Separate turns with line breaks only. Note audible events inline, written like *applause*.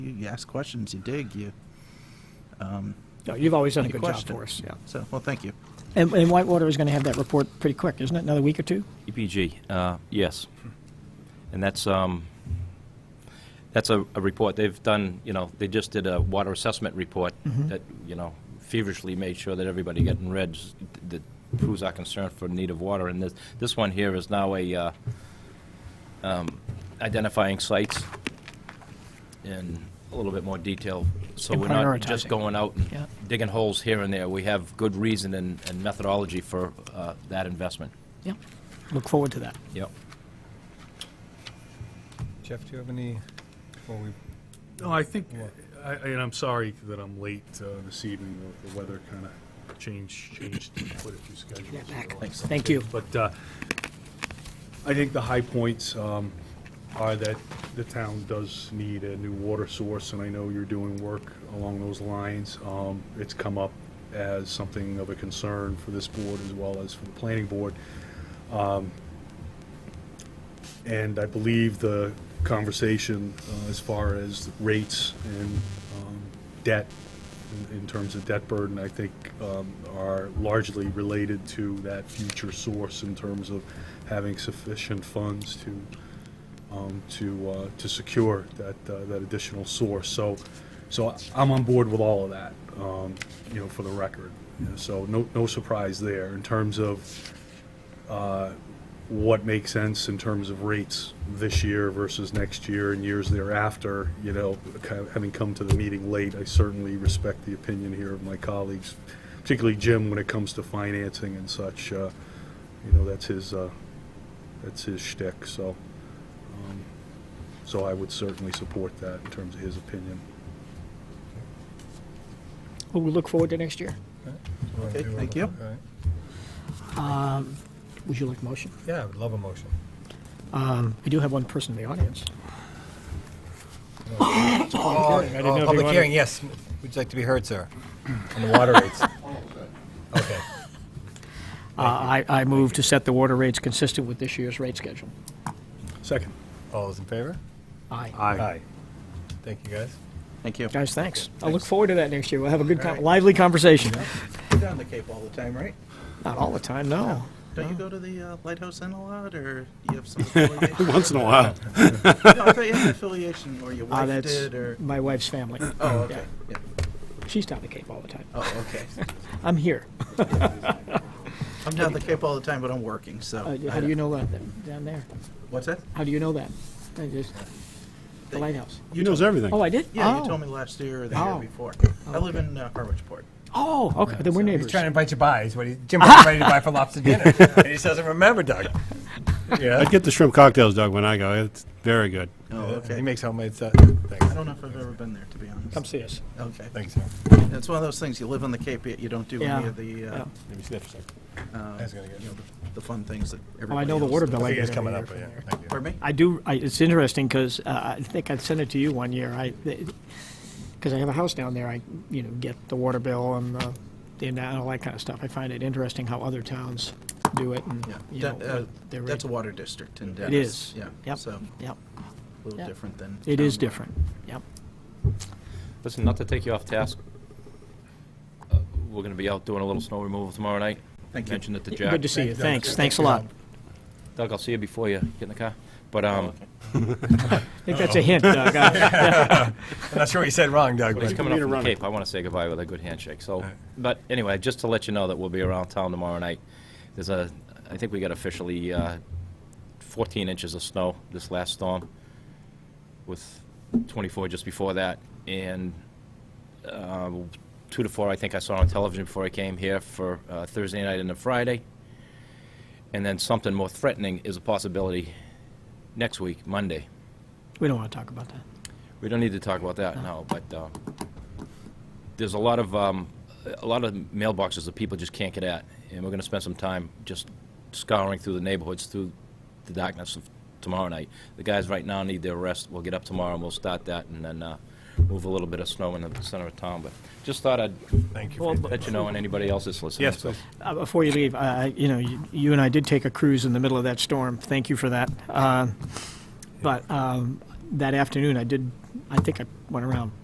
you ask questions, you dig, you.
No, you've always done a
you
good job
question.
for us, yeah.
So, well, thank you.
And, and Whitewater is going to have that report pretty quick, isn't it? Another week or two?
EPG, uh, yes. And that's, um, that's a, a report, they've done, you know, they just did a water assessment report
Mm-hmm.
that, you know, feverishly made sure that everybody getting reds, that proves our concern for need of water, and this, this one here is now a, uh, um, identifying sites in a little bit more detail, so
And
we're not just
prioritizing.
going out
Yeah.
and digging holes here and there, we have good reason and, and methodology for, uh, that investment,
Yeah. Look forward to that.
yep.
Jeff, do you have any, well, we,
No, I think, I, I- and I'm sorry that I'm late uh, this evening. The- The weather kind of changed, changed quite a few schedules.
back.
Thanks.
Thank you.
But uh, I think the high points um, are that the town does need a new water source, and I know you're doing work along those lines. Um, It's come up as something of a concern for this board as well as for the planning board. And I believe the conversation uh, as far as rates and um, debt, in- in terms of debt burden, I think um, are largely related to that future source in terms of having sufficient funds to, um, to, uh, to secure that, uh, that additional source. So, so I'm on board with all of that, um, you know, for the record. So no, no surprise there. In terms of uh, what makes sense in terms of rates this year versus next year and years thereafter. You know, kind of having come to the meeting late, I certainly respect the opinion here of my colleagues, particularly Jim when it comes to financing and such. uh, You know, that's his, uh, that's his shtick, so, um, so I would certainly support that in terms of his opinion.
Well, we look forward to next year.
Okay, thank you.
all right.
Would you like a motion?
yeah, I would love a motion.
We do have one person in the audience.
Oh,
didn't know if you
public
wanted-
hearing, yes. Would you like to be heard, sir? On the water rates? Okay.
Uh, I, I move to set the water rates consistent with this year's rate schedule.
Second.
All those in favor?
Aye.
Aye.
Thank you, guys.
Thank you.
Guys, thanks. I look forward to that next year. We'll have a good, con- lively conversation.
You're down the Cape all the time, right?
Not all the time, no.
Don't you go to the uh, Lighthouse Inn a lot, or you have
*laughs*
some affiliation?
Once in a while.
*laughs* no, I thought you had an affiliation, or your
Uh,
wife
that's
did, or.
my wife's family.
*clears throat* Oh, okay. Yeah.
She's down the Cape all the time.
Oh, okay.
I'm here.
I'm down the Cape all the time, but I'm working, so.
Uh,
I
How do
don't-
you know that, that- down there?
What's that?
How do you know that? I just- The lighthouse.
He knows everything.
Oh, I did?
Yeah, you
Oh.
told me last year or the year
Oh.
before. I live in uh, Harwichport.
Oh, okay, then we're
He's
neighbors.
trying to invite you by. He's what he, Jim was ready to buy for lobster dinner. And he just doesn't remember, Doug. Yeah.
I'd get the shrimp cocktails, Doug, when I go. It's very good.
Oh,
He
okay.
makes homemade stuff.
I
Thanks.
don't know if I've ever been there, to be honest.
Come see us.
Okay.
Thanks, sir.
It's one of those things, you live on the Cape, yet you don't do
Yeah.
any of the, uh,
Yeah.
Let me sniff, sir.
um,
That's gonna get-
you know, the- the fun things that
Oh, I
everybody
know the
else
water
does.
bill.
I
I
think
get
it's coming
every
up, but
year.
yeah. Thank you.
Pardon me?
I do, I, it's interesting, because I think I sent it to you one year. I, because I have a house down there, I, you know, get the water bill and the, and all that kind of stuff. I find it interesting how other towns do it and,
Yeah.
you know.
That- uh,
what their
That's a
rate-
water district in Dennis.
It is.
Yeah,
Yep,
so a
yep.
little
Yep.
different than.
It is
town water.
different, yep.
Listen, not to take you off task, uh, we're gonna be out doing a little snow removal tomorrow night.
Thank you.
Mentioned it to Jack.
Good to see you,
Thank you,
thanks,
Doug.
thanks a lot.
Doug, I'll see you before you get in the car. But, um,
I think that's a
*laughs*
hint, Doug. I-
I'm not sure what you said wrong, Doug,
but he's
but
coming
need
up
to
from the
run it.
Cape, I wanna say goodbye with a good handshake, so. But anyway, just to let you know that we'll be around town tomorrow night. There's a, I think we got officially, uh, fourteen inches of snow this last storm, with twenty-four just before that, and uh, two to four, I think I saw on television before I came here for uh, Thursday night and a Friday. And then something more threatening is a possibility next week, Monday.
We don't want to talk about that.
We don't need to talk about that now, but uh, there's a lot of, um, a lot of mailboxes that people just can't get at. And we're going to spend some time just scouring through the neighborhoods through the darkness of tomorrow night. The guys right now need their rest. We'll get up tomorrow and we'll start that and then uh, move a little bit of snow in the center of town. But just thought I'd
thank you. for
Well,
your-
but-
let you know and anybody else that's listening.
Yes,
So-
please.
Uh, Before you leave, I- I- you know, you- you and I did take a cruise in the middle of that storm. Thank you for that. Uh, But um, that afternoon, I did, I think I went around